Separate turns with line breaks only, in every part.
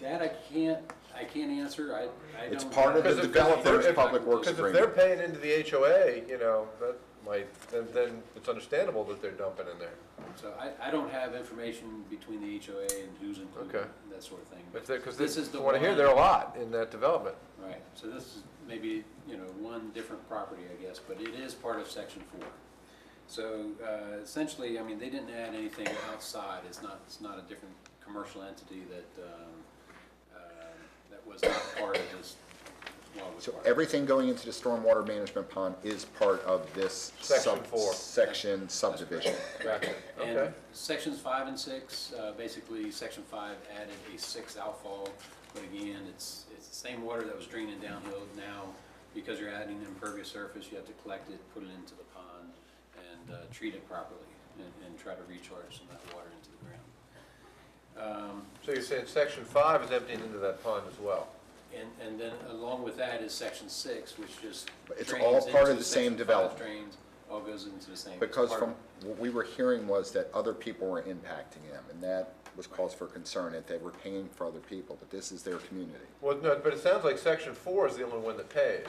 That I can't, I can't answer, I, I don't.
It's part of
know.
the
Because if-
developer's
if-
public works
Because if they're
agreement.
paying into the HOA, you know, that might, then, then it's understandable that they're dumping in there.
So I, I don't have information between the HOA and who's included,
Okay.
and that sort of thing.
If they're, because
This is the
from what I hear,
one-
they're a lot in that development.
Right, so this is maybe, you know, one different property, I guess, but it is part of section four. So uh, essentially, I mean, they didn't add anything outside, it's not, it's not a different commercial entity that, um, uh, that was not part of this, well, was
So
part of.
everything going into the stormwater management pond is part of this
Section
sub-
four.
section subdivision.
Gotcha.
And
Okay.
sections five and six, uh, basically, section five added a six outfall, but again, it's, it's the same water that was draining downhill now. Because you're adding impervious surface, you have to collect it, put it into the pond, and, uh, treat it properly, and, and try to recharge some of that water into the ground.
So you're saying section five is emptied into that pond as well?
And, and then along with that is section six, which just
But it's
drains
all part of
into
the same
section five,
development.
Drains, all goes into the same.
Because
it's part
from,
of-
what we were hearing was that other people were impacting them, and that was cause for concern, that they were paying for other people, but this is their community.
Well, no, but it sounds like section four is the only one that pays.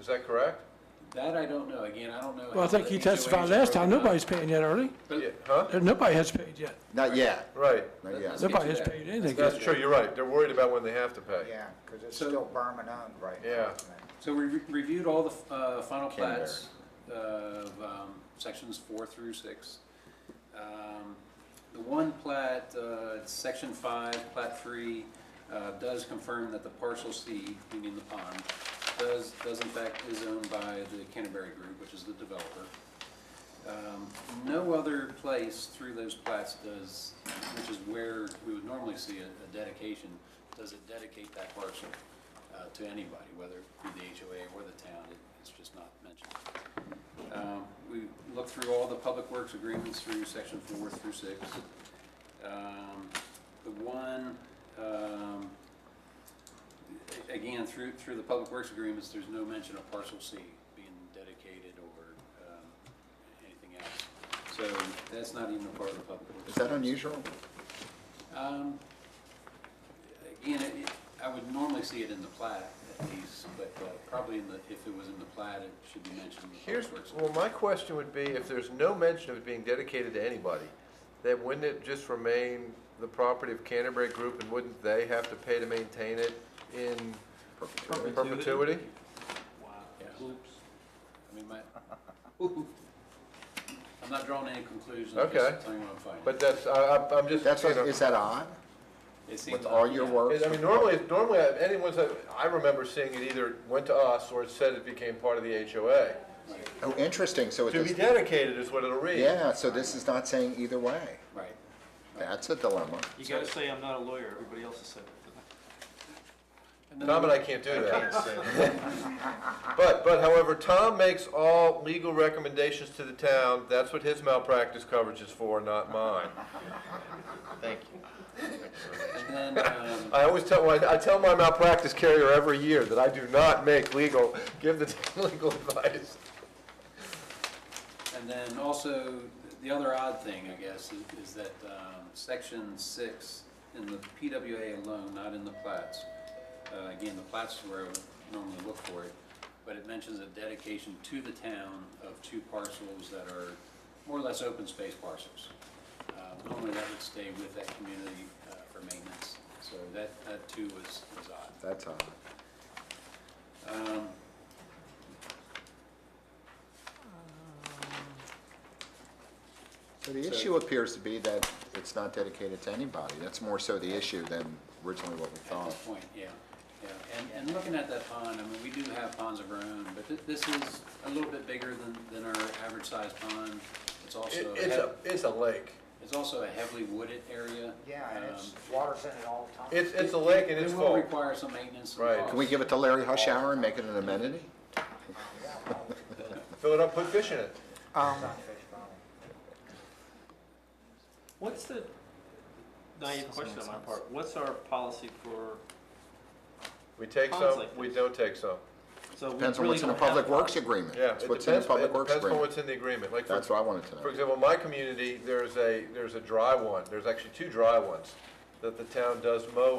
Is that correct?
That I don't know, again, I don't know.
Well, I
how
think
the
he
HOAs are
testified last time,
broken up.
nobody's paying yet, early.
But-
Yeah, Huh?
Nobody has paid yet.
Not yet,
Right.
not yet.
Let's get
Nobody
to
has
that.
paid anything yet.
That's true, you're right. They're worried about when they have to pay.
Yeah, because it's
So-
still Berman owned right now.
Yeah.
isn't it?
So we re- reviewed all the f- uh, final plats of um, sections four through six. Um, The one plat, uh, section five, plat three, uh, does confirm that the parcel C, meaning the pond, does, does in fact is owned by the Canterbury Group, which is the developer. Um, No other place through those plats does, which is where we would normally see a a dedication, does it dedicate that parcel uh, to anybody, whether it be the HOA or the town, it- it's just not mentioned. Um, We looked through all the public works agreements through section four through six. Um, The one, um, a- again, through, through the public works agreements, there's no mention of parcel C being dedicated or um, anything else. So that's not even a part of the public works.
Is that unusual?
Um, Again, it- it- I would normally see it in the plat at least, but uh, probably in the, if it was in the plat, it should be mentioned in the
Here's,
public works.
well, my question would be, if there's no mention of it being dedicated to anybody, then wouldn't it just remain the property of Canterbury Group, and wouldn't they have to pay to maintain it in perpetuity?
Yeah. Oops. I mean, my, I'm not drawing any conclusions, I'm
Okay.
just telling you what I'm finding.
But that's, I, I'm- I'm just,
That's,
you know,
what- is that odd?
It seems
With all your
yeah.
work?
is- I mean, normally, normally, I- anyone's, I remember seeing it either went to us, or it said it became part of the HOA.
Oh, interesting, so it
To be
does,
dedicated is what it'll read.
yeah, so this is not saying either way.
Right.
That's a dilemma.
You gotta say I'm not a lawyer, everybody else has said it.
Tom and I can't do that. But, but however, Tom makes all legal recommendations to the town, that's what his malpractice coverage is for, not mine. Thank you.
And then, um,
I always tell, well, I I tell my malpractice carrier every year that I do not make legal, give the town legal advice.
And then also, the other odd thing, I guess, is- is that um, section six in the PWA alone, not in the plats. uh, Again, the plats is where I would normally look for it, but it mentions a dedication to the town of two parcels that are more or less open space parcels. Uh, Normally, that would stay with that community uh, for maintenance, so that, that too was, was odd.
That's odd.
Um,
So the issue appears to be that it's not dedicated to anybody. That's more so the issue than originally what we
At
thought.
this point, yeah, yeah. And, and looking at that pond, I mean, we do have ponds of our own, but thi- this is a little bit bigger than, than our average sized pond. It's also,
It's a,
hev-
it's a lake.
it's also a heavily wooded area.
Yeah, and it's,
Um,
water's in it all the time.
It's, it's a lake and it's
It will
full.
require some maintenance. and
Right.
cost.
Can we give it to Larry Hushhour and make it an amenity?
Fill it up, put fish in it.
It's not fish pond.
What's the, naive question on my part, what's our policy for,
We take
Ponds
some,
like
we
this.
don't take some.
so we really don't have.
Depends on what's in a public works
policy.
agreement.
Yeah,
It's
it
what's in a
depends,
public
it
works
depends on
agreement.
what's in the agreement. Like, for
That's what I wanted to
For
know.
example, in my community, there's a, there's a dry one, there's actually two dry ones that the town does mow